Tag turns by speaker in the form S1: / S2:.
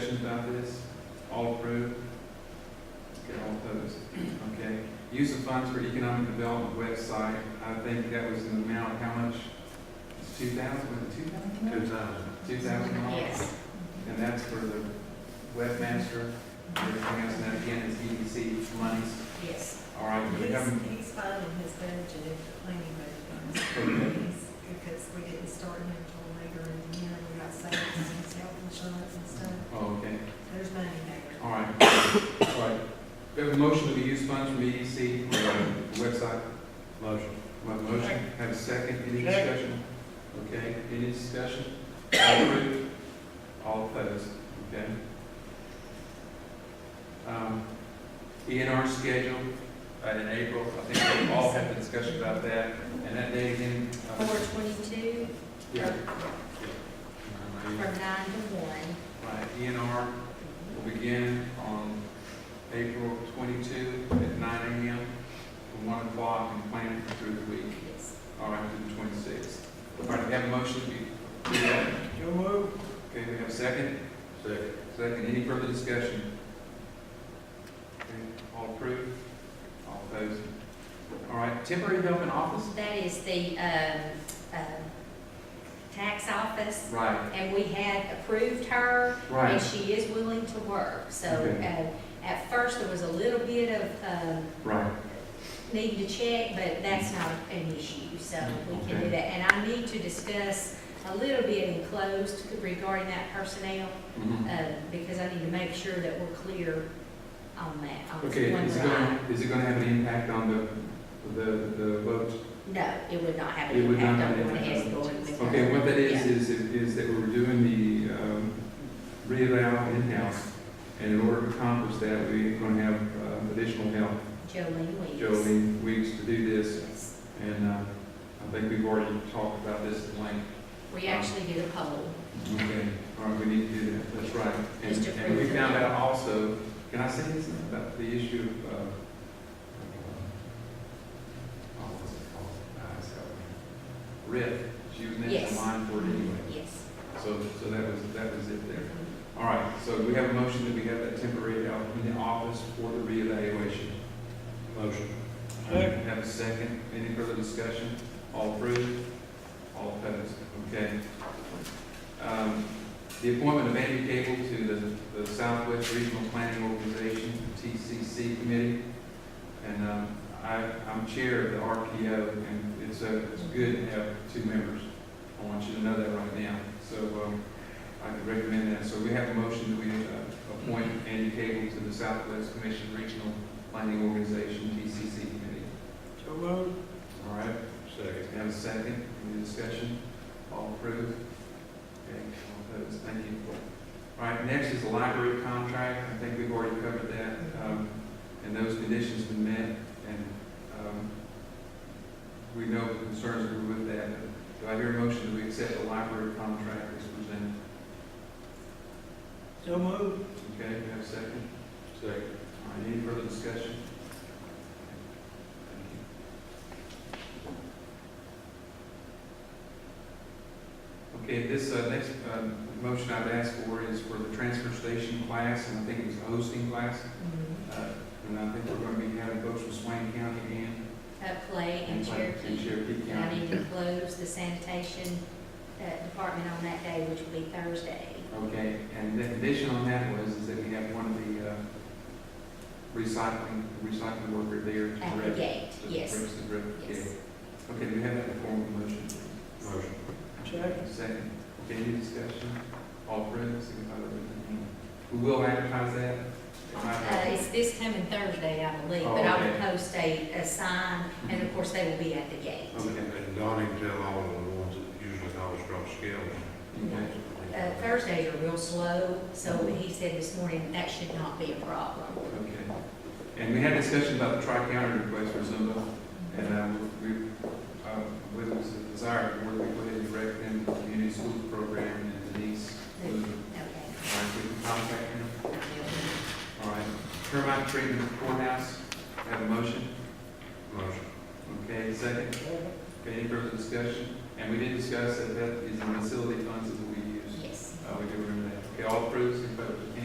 S1: discussion about this? All approved? Okay, all opposed? Okay. Use of funds for economic development website, I think that was an amount, of how much? Two thousand, was it two thousand?
S2: Two thousand.
S1: Two thousand dollars?
S3: Yes.
S1: And that's for the webmaster, everything else, and that again is EDC monies.
S3: Yes.
S1: All right, do we
S4: He's,
S1: have,
S4: he's finding his budget if the planning budget
S1: okay,
S4: comes, because we didn't start him until later in the year, we got savings and his health insurance and stuff,
S1: oh, okay.
S4: there's money there.
S1: All right, all right. We have a motion to use funds from E EDC for the website.
S2: Motion.
S1: My motion, have a second, any discussion? Okay, any discussion? All approved, all opposed, okay? Um, ENR schedule, uh, in April, I think we all had the discussion about that, and that date again, uh,
S3: Four twenty-two
S1: yeah, Uh,
S3: from nine to one.
S1: right, ENR will begin on April twenty-two at nine AM, from one o'clock, and plan it through the week.
S3: Yes.
S1: All right, through the twenty-sixth. All right, we have a motion to do that. Okay, we have a second.
S2: Second.
S1: Second, any further discussion? Okay, All approved? All opposed? All right, temporary help in office?
S3: That is the, um, um, tax office,
S1: Right,
S3: and we had approved her, and
S1: right,
S3: she is willing to work. So,
S1: Okay.
S3: uh, at first, there was a little bit of, um,
S1: right.
S3: need to check, but that's not an issue, so we can
S1: Okay.
S3: do that. And I need to discuss a little bit in closed regarding that personnel,
S1: Mhm.
S3: uh, because I need to make sure that we're clear on that. on
S1: Okay,
S3: when
S1: is it
S3: we're
S1: gonna, is it gonna have an impact on the, the, the vote?
S3: on. No, it would not have
S1: It
S3: an
S1: would not
S3: impact
S1: have
S3: on
S1: an
S3: what
S1: impact
S3: is
S1: on-
S3: going with
S1: Okay,
S3: that.
S1: what that is,
S3: Yeah.
S1: is, is that we were doing the, um, reeval in-house, and in order to accomplish that, we're gonna have uh, additional help
S3: Jolene Weeks.
S1: Jolene Weeks to do this,
S3: Yes.
S1: and uh, I think we've already talked about this at length.
S3: We actually did a poll.
S1: Okay. All right, we need to do that, that's right. And-
S3: Mr.
S1: And we
S3: President.
S1: found out also, can I say this about the issue of, uh, oh, what's it called? Ah, it's got me. RIF, she was next in
S3: Yes.
S1: line for it anyway.
S3: Yes.
S1: So, so that was, that was it there. All right, so we have a motion that we have that temporary out in the office for the reevaluation.
S2: Motion.
S1: Second. Have a second. Any further discussion? All approved? All opposed? Okay. Um, The appointment of Andy Cable to the- the Southwest Regional Planning Organization, TCC Committee. And um, I, I'm chair of the RPO, and it's, uh, it's good to have two members. I want you to know that right now. So um, I can recommend that. So we have a motion that we uh, appoint Andy Cable to the Southwest Commission Regional Planning Organization, TCC Committee. All right,
S2: Second.
S1: we have a second, any discussion? All approved? Okay, all opposed, thank you. All right, next is the library contract, I think we've already covered that, um, and those conditions been met, and, um, we know the concerns that were with that. Do I hear a motion that we accept the library contract as presented?
S2: So moved.
S1: Okay, we have a second?
S2: Second.
S1: All right, any further discussion? Okay, this, uh, next, uh, motion I've asked for is for the transfer station class, and I think it was a hosting class.
S3: Mhm.
S1: Uh, and I think we're gonna be having folks from Swain County and.
S3: At Clay and
S1: And
S3: Cherokee.
S1: Cherokee
S3: And I
S1: County.
S3: need to close the sanitation, uh, department on that day, which will be Thursday.
S1: Okay, and the condition on that was, is that we have one of the, uh, recycling, recycling worker there to
S3: At the
S1: direct.
S3: gate,
S1: to
S3: yes,
S1: direct- to direct-
S3: yes.
S1: Okay, do we have that in the form of a motion?
S2: Motion.
S1: Second. Okay, any discussion? All approved, signify by raising your hand. We will advertise that. It
S3: Uh,
S1: might be-
S3: it's this coming Thursday, I believe,
S1: Oh,
S3: but I will
S1: okay.
S3: post a, a sign, and of course, they will be at the gate.
S1: Okay.
S2: And Donnie can tell all of the ones that usually call us from
S1: Okay.
S3: Uh,
S2: scales.
S3: Thursdays are real slow, so he said this morning, that should not be a problem.
S1: Okay. And we had a discussion about the tri-county request for Zumba, and uh, we, uh, with it was a desire, we would go ahead and direct them to the community school program and Denise.
S3: Okay.
S1: Lutheran. All right, we can contact them. All right. Termite treatment courthouse, have a motion?
S2: Motion.
S1: Okay, second? Okay, any further discussion? And we did discuss that that is in facility funds that we use.
S3: Yes.
S1: Uh, we do remember that. Okay, all approved, signify by